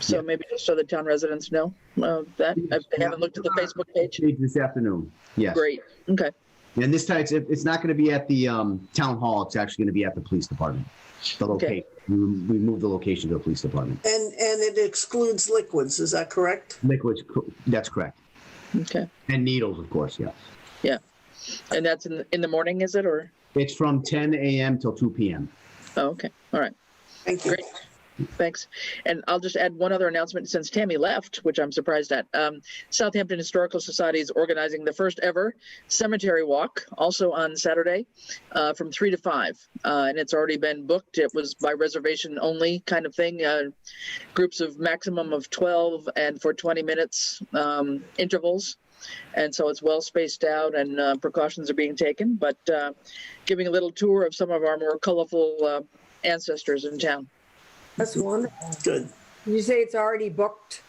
So maybe just so the town residents know uh, that, if they haven't looked at the Facebook page. Page This afternoon, yes. Great, okay, And this time, it's, it's not going to be at the um, town hall, it's actually going to be at the police department. The Okay. location, we we moved the location to the police department. And, and it excludes liquids, is that correct? Liquids, co- that's correct. okay. And needles, of course, yeah. And that's in, in the morning, is it, or? It's from 10 AM till 2 PM. Oh, okay, all right. Thank you. Great. Thanks. And I'll just add one other announcement since Tammy left, which I'm surprised at. Um, Southampton Historical Society is organizing the first ever cemetery walk, also on Saturday, uh, from three to five. Uh, and it's already been booked. It was by reservation only kind of thing. Uh, groups of maximum of 12 and for 20 minutes um, intervals. And so it's well spaced out and uh, precautions are being taken, but uh, giving a little tour of some of our more colorful uh, ancestors in town. That's wonderful. Good. You say it's already booked?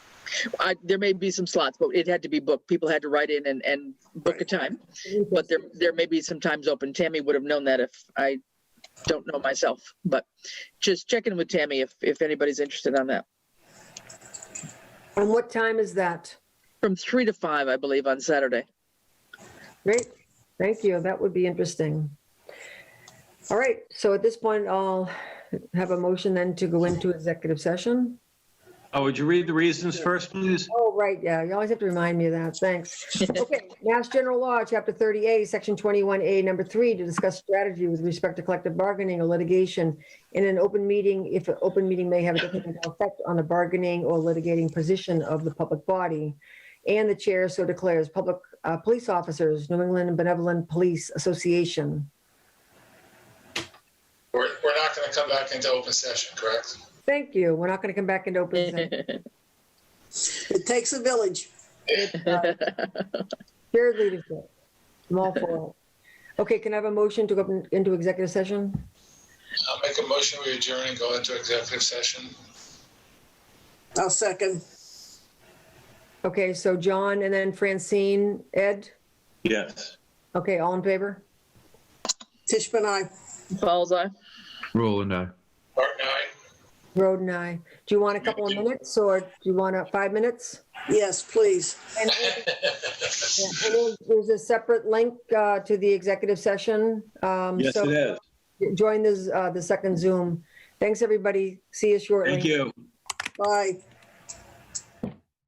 I, there may be some slots, but it had to be booked. People had to write in and, and book a time. But there, there may be some times open. Tammy would have known that if I don't know myself. But just check in with Tammy if, if anybody's interested on that. And what time is that? From three to five, I believe, on Saturday. Great, thank you, that would be interesting. All right, so at this point, I'll have a motion then to go into executive session. Oh, would you read the reasons first, please? Oh, right, yeah, you always have to remind me of that, thanks. Okay, Mass General Law, Chapter 30A, Section 21A, Number 3, to discuss strategy with respect to collective bargaining or litigation in an open meeting, if an open meeting may have a detrimental effect on the bargaining or litigating position of the public body. And the chair so declares, public uh, police officers, New England Benevolent Police Association. We're, we're not going to come back into open session, correct? Thank you, we're not going to come back into Eh, open session. It takes a village. uh, Shared leadership. I'm all for it. Okay, can I have a motion to go up into executive session? I'll make a motion, we adjourn and go into executive session. I'll second. Okay, so John and then Francine, Ed? Yes. Okay, all in favor? Tishman, I. Paul's eye. Roland, aye. Art and I, Roden, aye. Do you want a couple of minutes or do you want a five minutes? Yes, please. And yeah, and there's- There's a separate link uh, to the executive session. um, Yes, it so is. Join this, uh, the second Zoom. Thanks, everybody. See you shortly. Thank you. Bye.